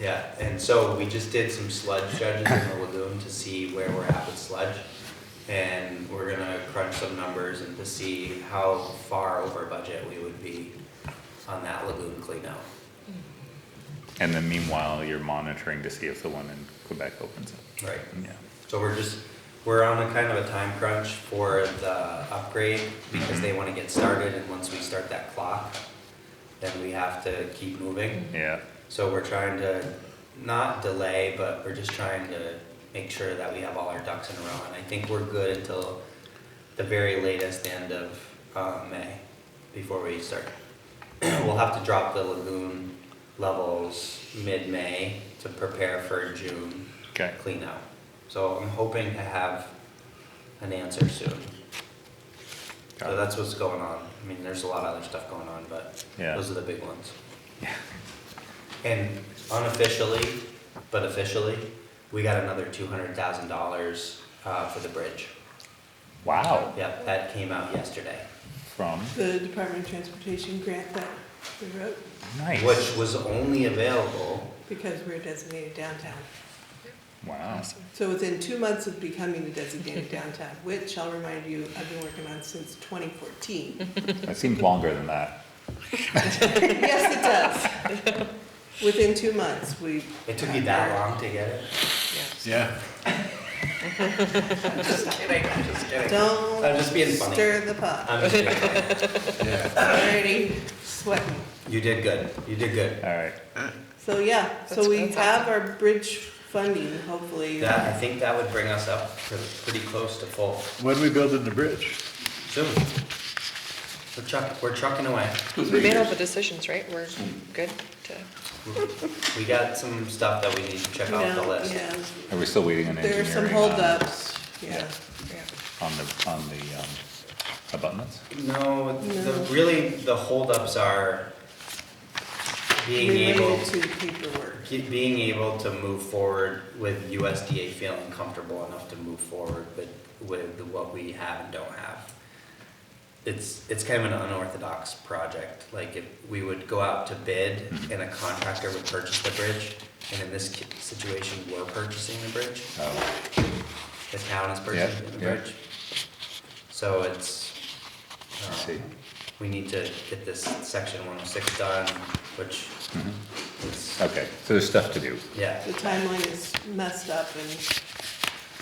Yeah, and so we just did some sludge judges in the lagoon to see where we're at with sludge. And we're gonna crunch some numbers and to see how far over budget we would be on that lagoon cleanout. And then meanwhile, you're monitoring to see if the one in Quebec opens up. Right. Yeah. So we're just, we're on a kind of a time crunch for the upgrade because they wanna get started and once we start that clock, then we have to keep moving. Yeah. So we're trying to not delay, but we're just trying to make sure that we have all our ducks in a row. And I think we're good until the very latest end of uh, May before we start. we'll have to drop the lagoon levels mid-May to prepare for June Okay. clean out. So I'm hoping to have an answer soon. Got So it. that's what's going on. I mean, there's a lot of other stuff going on, but Yeah. those are the big ones. Yeah. And unofficially, but officially, we got another two hundred thousand dollars, uh, for the bridge. Wow. Yep, that came out yesterday, From The Department of Transportation grant that we wrote nice. which was only available, because we're designated downtown. wow. So within two months of becoming a designated downtown, which I'll remind you, I've been working on since 2014. That seems longer than that. Yes, it does. Within two months, we. it took you that long to get it? Yeah. I'm just kidding, I'm just kidding. Don't. I'm just being funny. Stir the pot. I'm just kidding. Already sweating. You did good, you did good. All right. So yeah, so That's we fantastic. have our bridge funding, hopefully. That, I think that would bring us up to pretty close to full When we building the bridge? soon. We're trucking, we're trucking away. We made all the decisions, right? We're good to, We got some stuff that we need to check You off the know, list. uh, yeah, Are we still waiting on There are engineering? some on- holdups, yeah. yeah. On the, on the, um, abutments? No, the, No. really, the holdups are being able, Related to paperwork. ge- being able to move forward with USDA feeling comfortable enough to move forward with, with what we have and don't have. It's, it's kind of an unorthodox project, like if we would go out to bid and a contractor would purchase the bridge, and in this ki- situation, we're purchasing the bridge, Oh, the town is purchasing the yeah. bridge. So it's, I uh, see. we need to get this section one oh six done, which Mhm. is, Okay, so there's stuff to do. yeah. The timeline is messed up and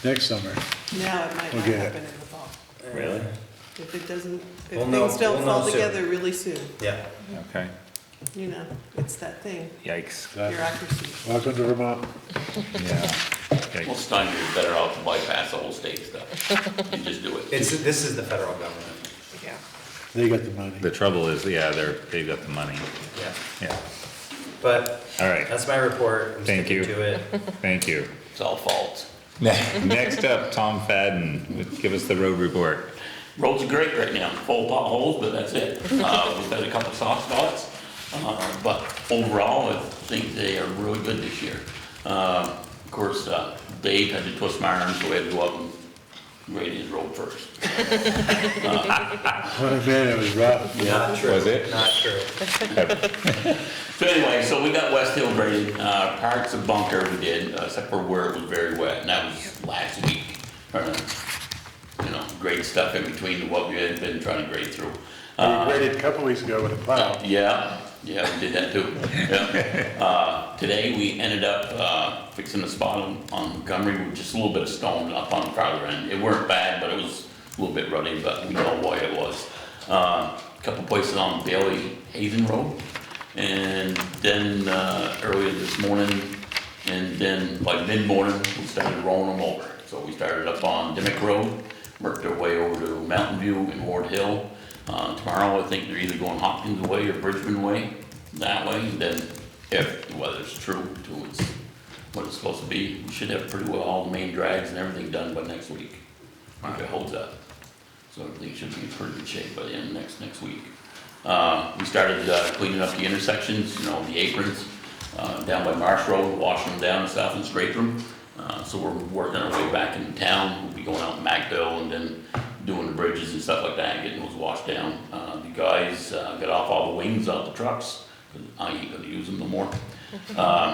Next summer. now it might not Okay. happen in the fall. Really? If it doesn't, We'll if know- things don't we'll know fall soon. together really soon, Yeah, Okay. you know, it's that thing, Yikes. That- bureaucracy. Welcome to Vermont. Yeah. Well, Yikes. Stein, you're better off to bypass the whole state stuff. You just do it. it's, this is the federal government, Yeah. They got the money. The trouble is, yeah, they're, they've got the money. yeah. Yeah. But All right. that's my report, I'm Thank sticking you. to it. Thank you. It's all fault. Next up, Tom Fadden, give us the road report. Roads are great right now, full of potholes, but that's it. Uh, we've had a couple soft spots, uh, but overall, I think they are really good this year. Uh, of course, uh, Dave had to twist my arm, so we had to go up and grade his road first. What a Oh, man, it was rough. Not true. Was it? Not true. So anyway, so we got West Hill graded, uh, parts of Bunker we did, uh, except for where it was very wet, and that was last week. Uh, You know, great stuff in between what we had been trying to grade through. We waited a couple weeks ago with a plow. Yeah, yeah, we did that too, yeah. Uh, today, we ended up, uh, fixing a spot on on Montgomery with just a little bit of stone up on the farther end. It weren't bad, but it was a little bit ruddy, but we know why it was. Uh, couple places on Bailey Haven Road, and then, uh, earlier this morning, and then by mid-morning, we started rolling them over. So we started up on Dimick Road, worked our way over to Mountain View and Ward Hill. Uh, tomorrow, I think they're either going Hopkins Way or Bridgman Way, that way, and then if the weather's true to its, what it's supposed to be, we should have pretty well all the main drags and everything done by next week. If it holds up. So everything should be in pretty good shape by the end of next, next week. Uh, we started uh, cleaning up the intersections, you know, the aprons, uh, down by Marsh Road, washing them down south and scrape them. Uh, so we're working our way back into town, we'll be going out in Macdale and then doing the bridges and stuff like that, getting those washed down. Uh, the guys, uh, got off all the wings out the trucks, 'cause I ain't gonna use them no more. Um,